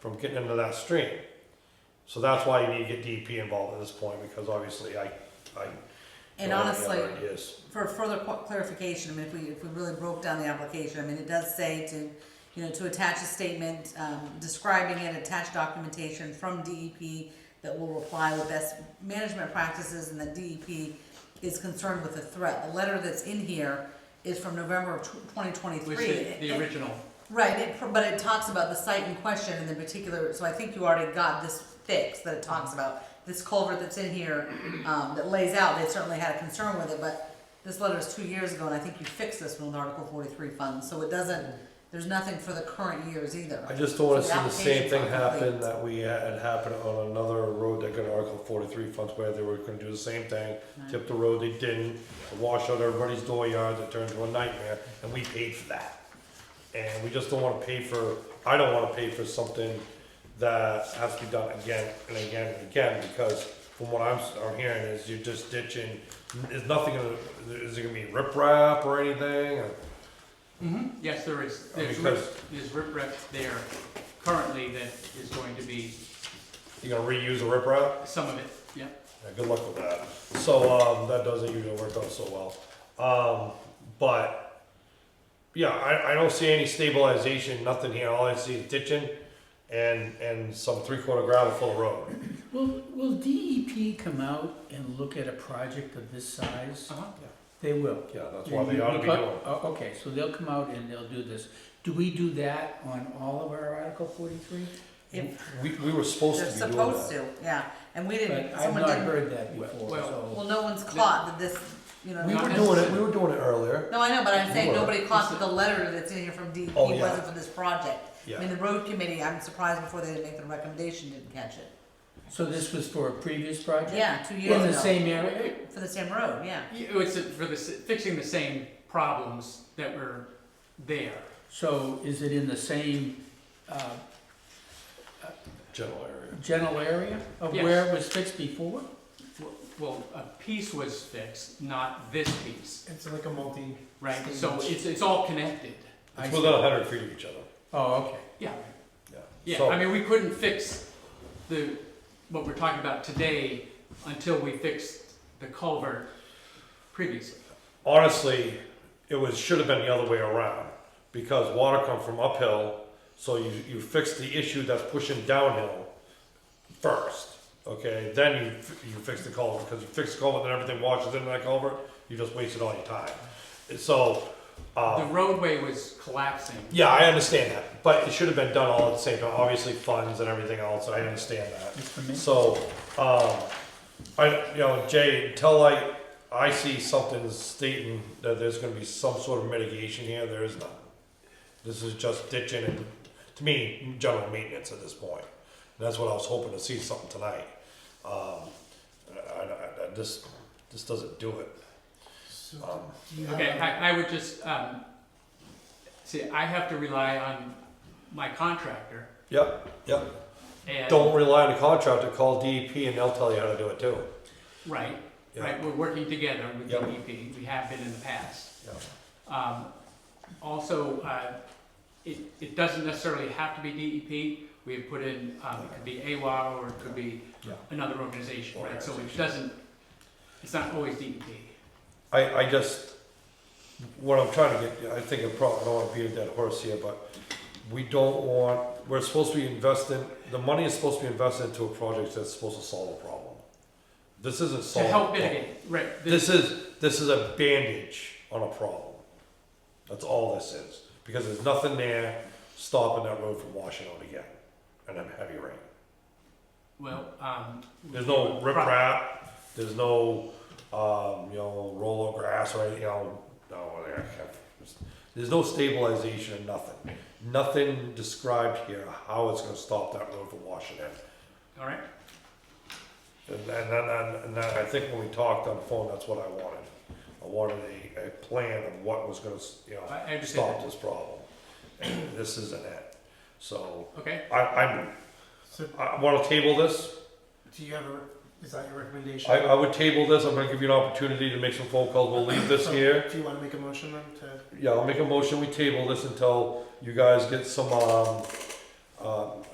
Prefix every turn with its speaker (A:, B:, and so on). A: from getting into that stream. So that's why you need to get DEP involved at this point, because obviously I, I.
B: And
A: don't have any
B: honestly,
A: other Ideas.
B: for further qu- clarification, I mean, if we, if we really broke down the application, I mean, it does say to, you know, to attach a statement, um, describing it, attach documentation from DEP that will reply with best management practices and that DEP is concerned with the threat. The letter that's in here is from November of twenty twenty-three.
C: Which is the original,
B: Right, it, pr- but it talks about the site in question and the particular, so I think you already got this fix that it talks about. This culvert that's in here, um, that lays out, they certainly had a concern with it, but this letter is two years ago and I think you fixed this one with Article forty-three funds, so it doesn't, there's nothing for the current years either.
A: I just don't wanna see
B: So the
A: the same thing
B: application's not
A: happen
B: complete.
A: that we had happen on another road that got Article forty-three funds where they were gonna do the same thing. Tip the road, they didn't, wash out everybody's dooryards, it turned into a nightmare, and we paid for that. And we just don't wanna pay for, I don't wanna pay for something that has to be done again and again and again, because from what I'm, s- I'm hearing is you're just ditching, is nothing, gonna- is it gonna be riprap or anything, or?
C: yes, there is,
A: Oh,
C: there's rip,
A: because-
C: there's riprap there currently that is going to be,
A: You gonna reuse the riprap?
C: some of it, yeah.
A: Yeah, good luck with that. So um, that doesn't usually work out so well. Um, but yeah, I, I don't see any stabilization, nothing here. All I see is ditching and and some three quarter gravel full of road.
D: Will, will DEP come out and look at a project of this size?
C: Uh-huh.
D: They will.
A: Yeah, that's why they ought to be doing. it.
D: Oh, Okay, so they'll come out and they'll do this. Do we do that on all of our Article forty-three?
B: If
A: We, we were supposed
B: they're
A: to be doing
B: supposed
A: that.
B: to, yeah, and we
D: But
B: didn't,
D: I've
B: someone
D: not
B: didn't,
D: heard that before,
C: Well-
B: well,
D: so.
B: no one's caught that this, you know.
A: We
C: Not
A: were doing it.
C: necessarily.
A: We were doing it earlier.
B: No, I know, but I'm saying
A: were.
B: nobody caught that the letter that's in here from DEP
A: Oh, yeah.
B: wasn't for this project. I mean,
A: Yeah.
B: the road committee, I'm surprised before they didn't make the recommendation, didn't catch it.
D: So this was for a previous project?
B: Yeah, two years
D: In the
B: ago,
D: same area?
B: for the same road, yeah.
C: Yeah, It's for the, s- fixing the same problems that were there.
D: So is it in the same, uh,
A: General area.
D: general area of
C: Yes.
D: where it was fixed before?
C: Well- Well, a piece was fixed, not this piece,
E: It's like a multi.
C: right? So it's, it's all connected.
D: I
A: It's
D: see.
A: within a hundred feet of each other.
D: Oh, okay.
C: Yeah,
A: Yeah.
C: yeah,
A: So,
C: I mean, we couldn't fix the, what we're talking about today until we fixed the culvert previously.
A: honestly, it was should have been the other way around because water come from uphill, so you you fix the issue that's pushing downhill first. Okay, then you f- you fix the culvert because you fix the culvert, then everything washes into that culvert. You just wasted all your time. So. Um,
C: The roadway was collapsing.
A: yeah, I understand that, but it should have been done all at the same time. Obviously, funds and everything else. I understand that. So, um, I you know, Jay, until I I see something stating that there's going to be some sort of mitigation here, there is none. This is just ditching and, to me, general maintenance at this point. And that's what I was hoping to see something tonight. Um, I, I, I, this this doesn't do it.
E: So
A: Um,
E: do you have
C: Okay,
E: a-
C: I, I would just, um, see, I have to rely on my contractor
A: yep, yep.
C: and.
A: Don't rely on the contractor. Call DEP and they'll tell you how to do it too.
C: Right,
A: Yeah.
C: right, we're working together with
A: Yeah.
C: DEP, we have been in the past.
A: Yeah.
C: Um, Also, uh, it, it doesn't necessarily have to be DEP. We have put in, um, it could be AWA or it could be
A: Yeah.
C: another organization, right? So it doesn't, it's not always E DEP.
A: I, I just, what I'm trying to get, I think I probably I don't wanna beat a dead horse here, but we don't want, we're supposed to be investing, the money is supposed to be invested into a project that's supposed to solve a problem. This isn't
C: To
A: solving. a
C: help
A: problem.
C: mitigate, right, this,
A: This is, this is a bandage on a problem. That's all this is, because there's nothing there stopping that road from washing out again, and then heavy rain.
C: well, um.
A: There's no
C: pro-
A: riprap. There's no, um, you know, roll of grass or anything. You know, no, I can't- there's no stabilization or nothing. Nothing described here how it's going to stop that road from washing in.
C: All right,
A: And, and, and, and, and I think when we talked on the phone, that's what I wanted. I wanted a, a plan of what was going to, you know,
C: I- I understand
A: stop
C: that.
A: this problem. And this isn't it. So
C: okay.
A: I, I'm,
E: So
A: I want to table this.
E: do you have a, is that your recommendation?
A: I, I would table this, I'm gonna give you an opportunity to make some phone calls, we'll leave this here.
E: Do you wanna make a motion then to?
A: Yeah, I'll make a motion, we table this until you guys get some, um, um,